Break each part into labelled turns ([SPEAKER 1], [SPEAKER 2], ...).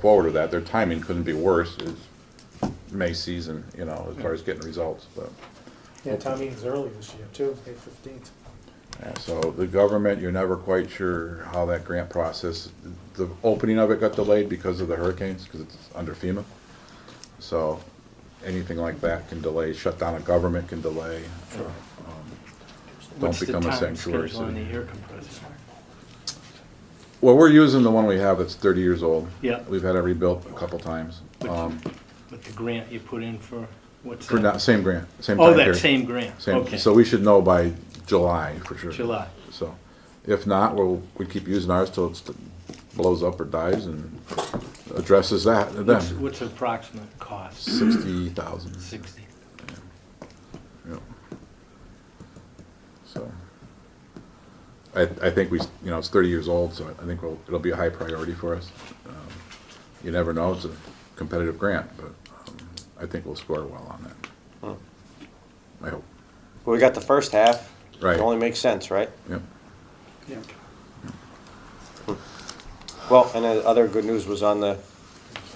[SPEAKER 1] forward with that. Their timing couldn't be worse. It's May season, you know, as far as getting results, but.
[SPEAKER 2] Yeah, town meeting's early this year too, May fifteenth.
[SPEAKER 1] yeah, So the government, you're never quite sure how that grant process, the opening of it got delayed because of the hurricanes, because it's under FEMA. So anything like that can delay, shutdown of government can delay. Don't
[SPEAKER 3] What's the
[SPEAKER 1] Um, become a
[SPEAKER 3] time
[SPEAKER 1] sanctuary
[SPEAKER 3] schedule on
[SPEAKER 1] city.
[SPEAKER 3] the air compressor?
[SPEAKER 1] Well, we're using the one we have that's thirty years old.
[SPEAKER 3] Yeah.
[SPEAKER 1] We've had it rebuilt a couple times.
[SPEAKER 3] But-
[SPEAKER 1] Um,
[SPEAKER 3] With the grant you put in for, what's
[SPEAKER 1] For
[SPEAKER 3] that?
[SPEAKER 1] not, same grant, same time
[SPEAKER 3] Oh,
[SPEAKER 1] period.
[SPEAKER 3] that same grant,
[SPEAKER 1] Same-
[SPEAKER 3] okay.
[SPEAKER 1] So we should know by July for sure.
[SPEAKER 3] July.
[SPEAKER 1] So if not, we'll, we keep using ours till it blows up or dies and addresses that
[SPEAKER 3] What's,
[SPEAKER 1] then.
[SPEAKER 3] what's approximate cost?
[SPEAKER 1] Sixty thousand,
[SPEAKER 3] Sixty.
[SPEAKER 1] yeah. So. I, I think we, s- you know, it's thirty years old, so I think we'll, it'll be a high priority for us. Um, You never know, it's a competitive grant, but um, I think we'll score well on that. I hope,
[SPEAKER 4] Well, we got the first half.
[SPEAKER 1] Right.
[SPEAKER 4] It only makes sense, right?
[SPEAKER 1] yeah.
[SPEAKER 2] Yeah.
[SPEAKER 4] Well, and the other good news was on the,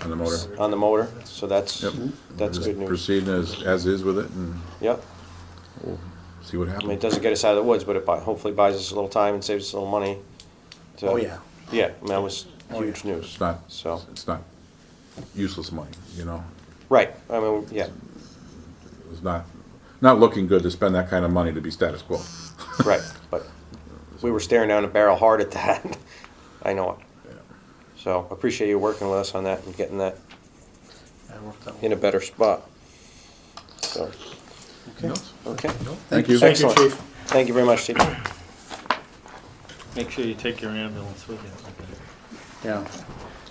[SPEAKER 1] on the motor.
[SPEAKER 4] on the motor, so that's,
[SPEAKER 1] Yep.
[SPEAKER 4] that's
[SPEAKER 1] Just
[SPEAKER 4] good news.
[SPEAKER 1] Proceed as, as is with it and
[SPEAKER 4] Yep.
[SPEAKER 1] see what
[SPEAKER 4] I mean, it
[SPEAKER 1] happens.
[SPEAKER 4] doesn't get us out of the woods, but it buy- hopefully buys us a little time and saves us a little money. to-
[SPEAKER 5] Oh, yeah. Oh,
[SPEAKER 4] Yeah, I mean, that was huge
[SPEAKER 1] It's
[SPEAKER 4] news.
[SPEAKER 1] not,
[SPEAKER 4] So,
[SPEAKER 1] it's not useless money, you know?
[SPEAKER 4] right, I mean, yeah,
[SPEAKER 1] It's not, not looking good to spend that kind of money to be status quo.
[SPEAKER 4] right, but we were staring down a barrel hard at that. I know it. So appreciate you working with us on that and getting that
[SPEAKER 5] I worked out.
[SPEAKER 4] in a better spot. So,
[SPEAKER 5] Okay.
[SPEAKER 4] okay.
[SPEAKER 1] Thank you.
[SPEAKER 2] Thank you,
[SPEAKER 4] Excellent.
[SPEAKER 2] chief.
[SPEAKER 4] Thank you very much, Chief.
[SPEAKER 3] Make sure you take your ambulance with you.
[SPEAKER 5] Yeah.
[SPEAKER 1] I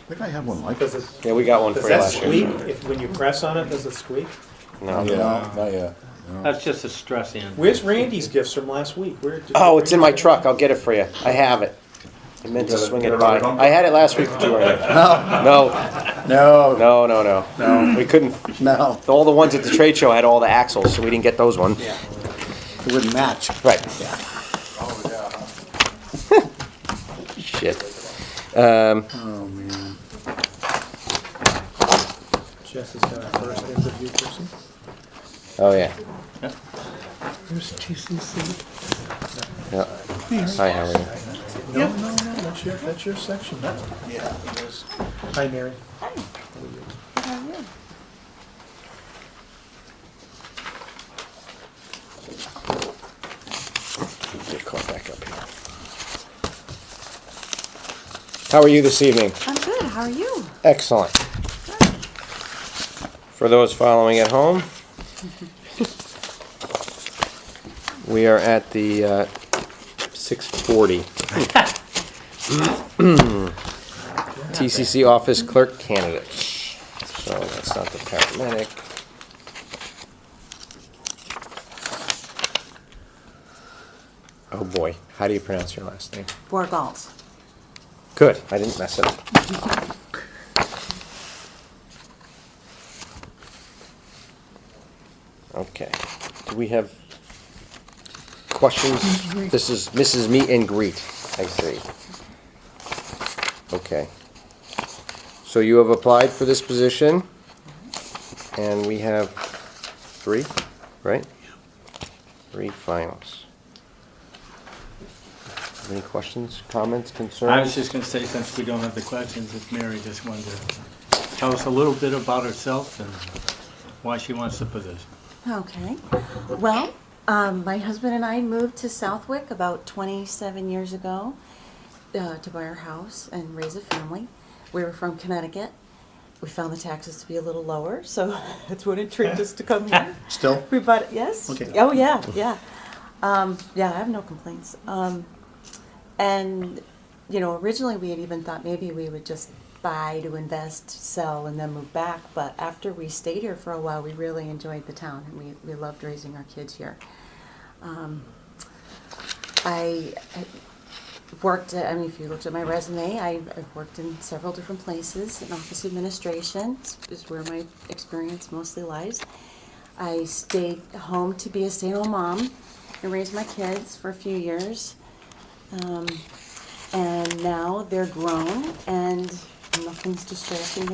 [SPEAKER 1] think I have one like
[SPEAKER 2] Does
[SPEAKER 1] this.
[SPEAKER 2] it,
[SPEAKER 4] Yeah, we got one for
[SPEAKER 2] does
[SPEAKER 4] you
[SPEAKER 2] that
[SPEAKER 4] last
[SPEAKER 2] squeak?
[SPEAKER 4] year.
[SPEAKER 2] If, when you press on it, does it squeak?
[SPEAKER 4] No.
[SPEAKER 1] not yet.
[SPEAKER 3] That's just a stress ambulance.
[SPEAKER 2] Where's Randy's gifts from last week? Where did?
[SPEAKER 4] Oh, it's in my truck. I'll get it for you. I have it. I meant to swing it by. I had it last week for two hundred. No,
[SPEAKER 5] No,
[SPEAKER 4] no, no, no. No. We couldn't,
[SPEAKER 5] no,
[SPEAKER 4] all the ones at the trade show had all the axles, so we didn't get those ones.
[SPEAKER 5] it wouldn't match.
[SPEAKER 4] Right. Shit. Um,
[SPEAKER 5] Oh, man.
[SPEAKER 2] Jess has got our first interview person.
[SPEAKER 4] oh, yeah.
[SPEAKER 5] There's TCC.
[SPEAKER 4] Yeah. Hi, how are you?
[SPEAKER 2] No, no, no, that's your, that's your section. Yeah. Hi, Mary.
[SPEAKER 4] Get caught back up here. How are you this evening?
[SPEAKER 6] I'm good. How are you?
[SPEAKER 4] Excellent. For those following at home, we are at the uh, 640. TCC office clerk candidate. So that's not the paramedic. Oh boy, how do you pronounce your last name?
[SPEAKER 6] Borgals.
[SPEAKER 4] Good, I didn't mess it up. Okay, do we have questions? This is Mrs. Meet and Greet, I see. Okay. So you have applied for this position, and we have three, right? Three finals. Any questions, comments, concerns?
[SPEAKER 3] I was just gonna say, since we don't have the questions, if Mary just wanted to tell us a little bit about herself and why she wants the position.
[SPEAKER 6] Okay. Well, um, my husband and I moved to Southwick about 27 years ago uh, to buy our house and raise a family. We were from Connecticut. We found the taxes to be a little lower, so that's what intrigued us to come here.
[SPEAKER 5] Still?
[SPEAKER 6] We bought it, yes.
[SPEAKER 5] Okay.
[SPEAKER 6] Oh, yeah, yeah. Um, yeah, I have no complaints. Um, and, you know, originally we had even thought maybe we would just buy to invest, sell, and then move back. But after we stayed here for a while, we really enjoyed the town and we, we loved raising our kids here. Um, I, I worked, I mean, if you looked at my resume, I, I've worked in several different places. In office administration is where my experience mostly lies. I stayed home to be a stay-at-home mom and raise my kids for a few years. Um, and now they're grown and nothing's distracting